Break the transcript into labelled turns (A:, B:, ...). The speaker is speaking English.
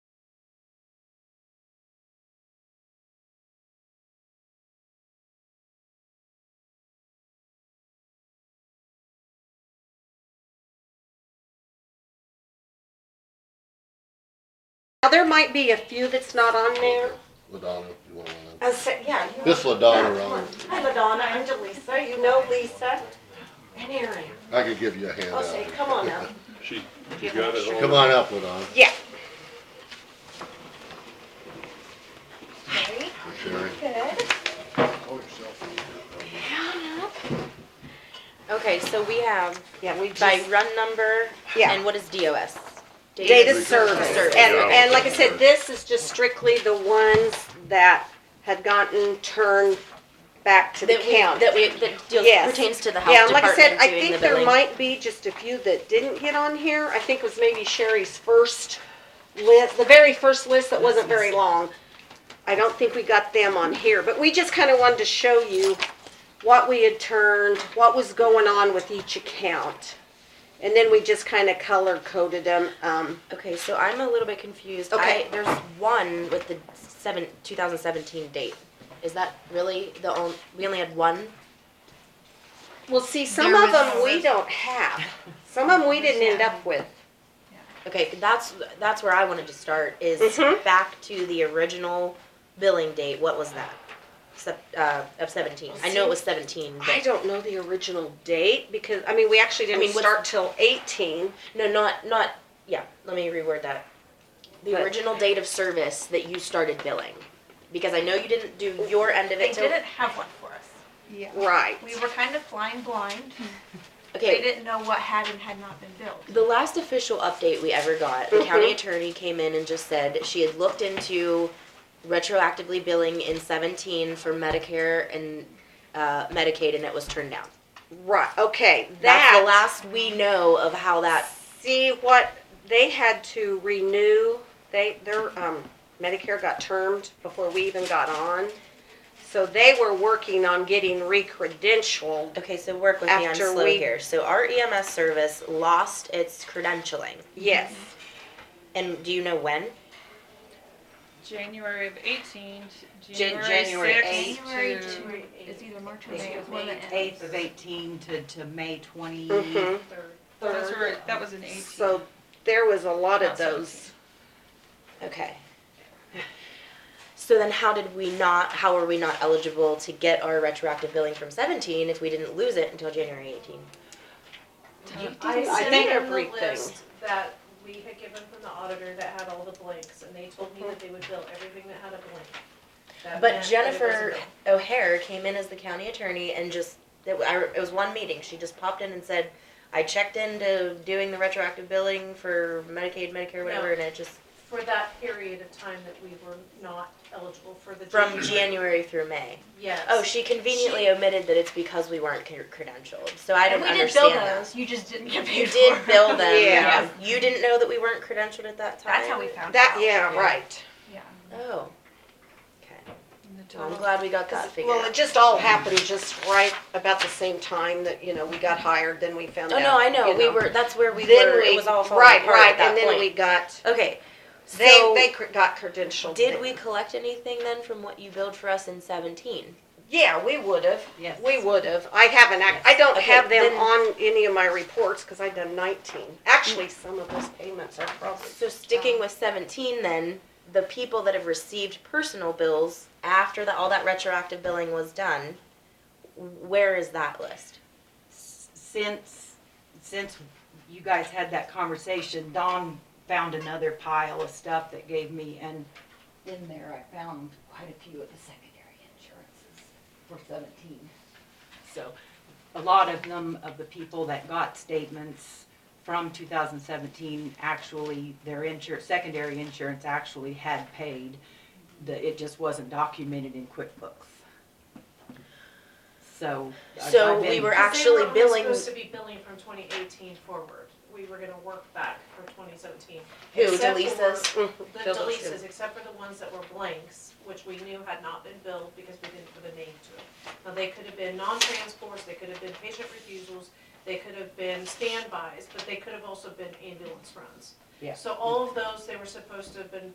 A: Now, there might be a few that's not on there.
B: Ladonna, if you want one.
A: I said, yeah. you-
B: This Ladonna,
A: Come on.
B: Ron,
A: Hi, Ladonna, I'm Delisa, you know Lisa, and Aaron.
B: I could give you a handout.
A: I'll say, come on now.
C: She, you got it all.
B: Come on up, Ladonna,
A: Yeah.
B: for Sherry.
A: Good.
D: Okay, so we have
A: Yeah, we
D: by
A: just,
D: run number
A: Yeah.
D: and what is DOS?
A: data service.
D: Service.
A: And,
C: Yeah.
A: and like I said, this is just strictly the ones that had gotten turned back to the
D: That we,
A: county.
D: that we, that deals,
A: Yes.
D: pertains to the
A: Yeah,
D: health
A: and like I said,
D: department
A: I
D: doing the
A: think there
D: billing.
A: might be just a few that didn't get on here. I think it was maybe Sherry's first list, the very first list that wasn't very long. I don't think we got them on here, but we just kinda wanted to show you what we had turned, what was going on with each account. And then we just kinda color coded them, um,
D: Okay, so I'm a little bit confused.
A: Okay.
D: I, there's one with the seven, two thousand seventeen date. Is that really the only, we only had one?
A: Well, see, some
E: There
A: of
E: was-
A: them we don't have. Some of them we didn't end up with.
D: Okay, that's, that's where I wanted to start, is
A: Mhm.
D: back to the original billing date, what was that? Sep- uh, of seventeen. I know it was seventeen,
A: I
D: but,
A: don't know the original date because, I mean, we actually
D: I
A: didn't
D: mean, what's-
A: start till eighteen.
D: no, not, not, yeah, let me reword that. The
A: But-
D: original date of service that you started billing, because I know you didn't do your end of
E: They
D: it till.
E: didn't have one for us.
A: Right.
E: We were kind of flying blind. They
D: Okay,
E: didn't know what had and had not been built.
D: the last official update we ever got, the
A: Mhm.
D: county attorney came in and just said she had looked into retroactively billing in seventeen for Medicare and, uh, Medicaid, and it was turned down.
A: Right, okay,
D: That's
A: that,
D: the last we know of how that,
A: see what, they had to renew, they, their, um, Medicare got termed before we even got on. So they were working on getting re-credentialed.
D: okay, so work with me, I'm
A: After
D: slow
A: we-
D: here. So our EMS service lost its credentialing,
A: Yes,
D: and do you know when?
F: January of 18,
G: Jan-
F: January
G: January
F: 6th.
G: eight.
E: January
G: to-
E: to, it's either March or May.
G: May
E: it's one of the
G: eighth
E: ends.
G: of eighteen to, to May twenty.
A: mhm,
F: Those were, that was an 18.
A: so there was a lot of
F: Not
A: those.
D: Okay. So then how did we not, how were we not eligible to get our retroactive billing from seventeen if we didn't lose it until January eighteen?
A: I, I think everything.
H: that we had given from the auditor that had all the blanks, and they told me that they would bill everything that had a blank.
D: But
H: That meant that it wasn't
D: Jennifer
H: billed.
D: O'Hare came in as the county attorney and just, it wa- I- it was one meeting, she just popped in and said, I checked into doing the retroactive billing for Medicaid, Medicare, whatever,
H: No.
D: and it just,
H: For that period of time that we were not eligible for the.
D: from January through May.
H: Yes.
D: Oh, she conveniently omitted that it's because we weren't cr- credentialed, so I don't
E: And we did bill
D: understand that.
E: those, you just didn't get
D: You
E: paid for
D: did
E: them.
D: bill
A: Yeah.
D: them, yeah. You didn't know that we weren't credentialed at that time?
E: That's how we found out.
A: That, yeah, right.
E: Yeah.
D: Oh. Okay.
F: The
D: Well, I'm
F: total-
D: glad we got that figured
A: Well, it
D: out.
A: just all happened just right about the same time that, you know, we got hired, then we found
D: Oh,
A: out.
D: no, I know.
A: you
D: We were, that's where we
A: Then
D: were,
A: we-
D: it was all falling
A: right,
D: apart
A: right,
D: at that
A: and then
D: point.
A: we got
D: Okay.
A: they
D: So,
A: they cr- got credentialed.
D: did
A: then.
D: we collect anything then from what you billed for us in 17?
A: Yeah, we would have.
G: Yes.
A: We would have. I haven't. Act- I don't
D: Okay,
A: have them
D: then-
A: on any of my reports because I've done 19. Actually, some of those payments are probably.
D: So, sticking with 17 then, the people that have received personal bills after that all that retroactive billing was done, where is that list?
G: Since, since you guys had that conversation, Dawn found another pile of stuff that gave me, and in there I found quite a few of the secondary insurances for seventeen. So, a lot of them, of the people that got statements from two thousand seventeen, actually, their insur, secondary insurance actually had paid. The, it just wasn't documented in QuickBooks. So. I've-
D: So
G: I've
D: we
G: been-
D: were
H: Because they
D: actually
H: were only
D: billing-
H: Supposed to be billing from twenty eighteen forward, we were gonna work back for twenty seventeen.
D: Who,
H: Except
D: Delisa's?
H: for The
G: Bill those
H: deletes, except for the ones that were blanks, which we knew had not been billed because we didn't put a name to it. Now, they could have been non-transports, they could have been patient refusals, they could have been standbys, but they could have also been ambulance runs.
G: Yeah.
H: So all of those, they were supposed to have been